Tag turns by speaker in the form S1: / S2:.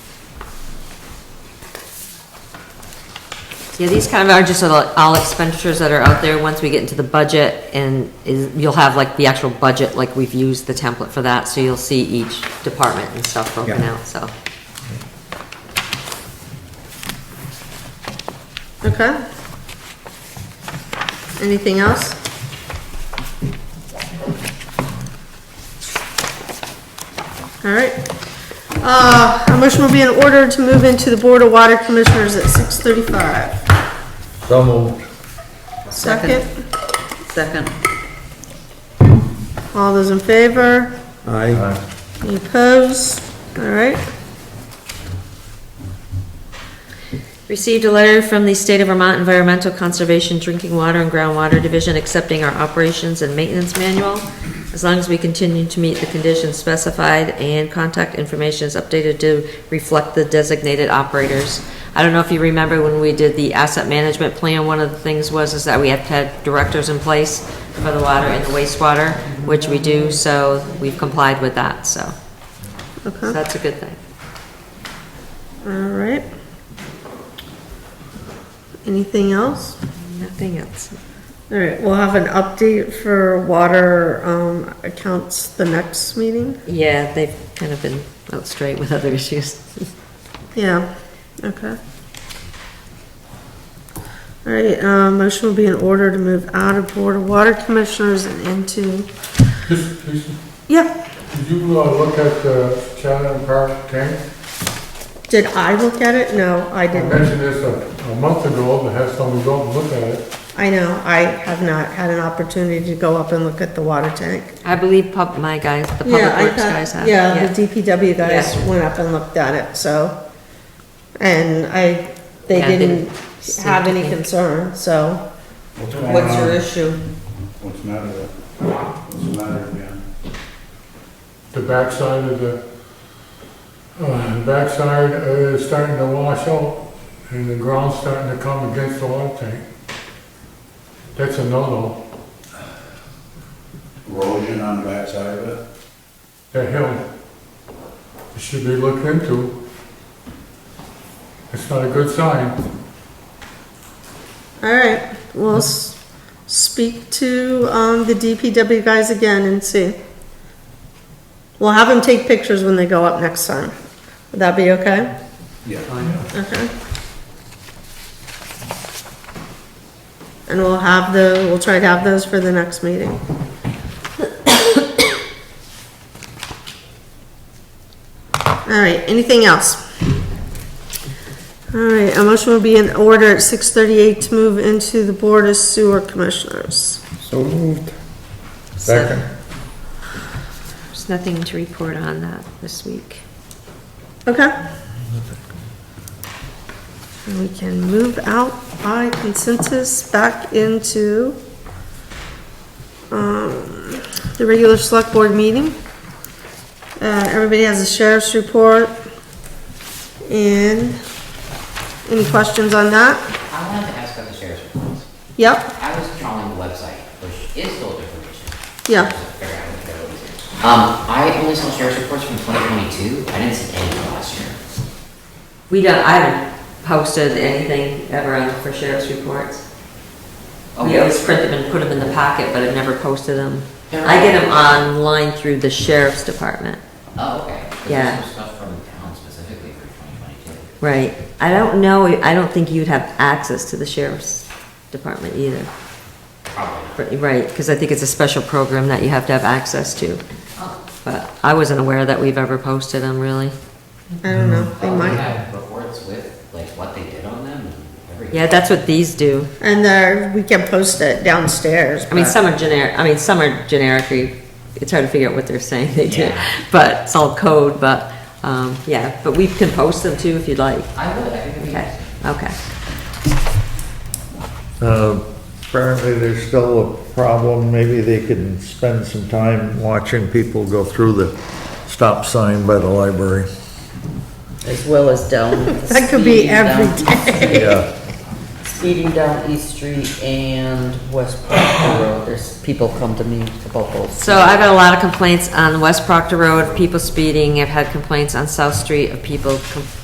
S1: Yeah, these kind of are just all all expenditures that are out there, once we get into the budget, and is, you'll have like the actual budget, like we've used the template for that, so you'll see each department and stuff broken
S2: Yeah.
S1: out, so.
S3: Okay. Anything else? All right. Uh, a motion will be in order to move into the Board of Water Commissioners at six thirty-five.
S2: So moved.
S3: Second,
S4: Second.
S3: all those in favor?
S2: Aye.
S3: Any opposed? All right.
S1: Received a letter from the State of Vermont Environmental Conservation Drinking Water and Groundwater Division accepting our operations and maintenance manual. As long as we continue to meet the conditions specified and contact information is updated to reflect the designated operators. I don't know if you remember when we did the asset management plan, one of the things was is that we have to have directors in place for the water and the wastewater, which we do, so we've complied with that, so. So that's a good thing.
S3: All right. Anything else?
S1: Nothing else.
S3: All right, we'll have an update for water, um, accounts the next meeting?
S1: Yeah, they've kind of been out straight with other issues.
S3: Yeah, okay. All right, uh, motion will be in order to move out of Board of Water Commissioners and into,
S5: Just, just,
S3: yeah,
S5: did you uh, look at the Chatham Park tank?
S3: did I look at it? No, I
S5: I
S3: didn't.
S5: mentioned this a, a month ago, but had someone go and look at it.
S3: I know, I have not had an opportunity to go up and look at the water tank.
S1: I believe pub, my guys, the public
S3: Yeah, I
S1: works
S3: thought-
S1: guys have.
S3: Yeah, the DPW guys
S1: Yeah.
S3: went up and looked at it, so, and I, they
S1: Yeah, I didn't
S3: didn't
S1: see
S3: have any
S1: anything.
S3: concern, so.
S6: What's going
S4: What's your
S6: on?
S4: issue?
S6: What's the matter with it? What's the matter again?
S5: The backside of the, uh, the backside uh, is starting to wash out and the ground's starting to come against the water tank. That's a no-no,
S6: Erosion on the backside of it?
S5: that hill. It should be looked into. It's not a good sign.
S3: All right, we'll s- speak to, um, the DPW guys again and see. We'll have them take pictures when they go up next time. Would that be okay?
S6: Yeah.
S3: Okay. And we'll have the, we'll try to have those for the next meeting. All right, anything else? All right, a motion will be in order at six thirty-eight to move into the Board of Sewer Commissioners.
S2: So moved.
S1: So
S2: Second.
S1: There's nothing to report on that this week.
S3: Okay? And we can move out by consensus back into um, the regular select board meeting. Uh, everybody has a sheriff's report. And any questions on that?
S7: I wanted to ask about the sheriff's reports.
S3: Yep,
S7: I was trawling the website, which is full of information.
S3: Yeah.
S7: So figure out what they're looking for. Um, I only saw sheriff's reports from twenty twenty-two, I didn't see any from last year.
S1: We don't, I haven't posted anything ever on for sheriff's reports. We
S7: Okay.
S1: always print them and put them in the packet, but I've never posted them.
S7: Yeah.
S1: I get them online through the sheriff's department.
S7: Oh, okay. 'Cause
S1: Yeah.
S7: There's some stuff from town specifically for twenty twenty-two.
S1: Right. I don't know, I don't think you'd have access to the sheriff's department either.
S7: Probably not.
S1: Right, because I think it's a special program that you have to have access to.
S7: Oh.
S1: But I wasn't aware that we've ever posted them, really.
S3: I don't know, they
S7: Oh, they
S3: might.
S7: have reports with, like, what they did on them and everything.
S1: Yeah, that's what these do.
S3: And there, we can post it downstairs.
S1: I mean,
S3: but-
S1: some are generic, I mean, some are generic, you- it's hard to figure out what they're saying they do.
S7: Yeah.
S1: But it's all code, but, um, yeah, but we can post them too if you'd like.
S7: I would, I think it'd be
S1: Okay,
S7: interesting.
S1: okay.
S2: Uh, Apparently, there's still a problem. Maybe they can spend some time watching people go through the stop sign by the library.
S4: As well as down.
S3: That could be
S4: speeding down-
S3: every day.
S2: Yeah.
S4: Speeding down East Street and West Proctor Road, there's, people come to me about those.
S1: So I've had a lot of complaints on West Proctor Road, people speeding. I've had complaints on South Street of people com-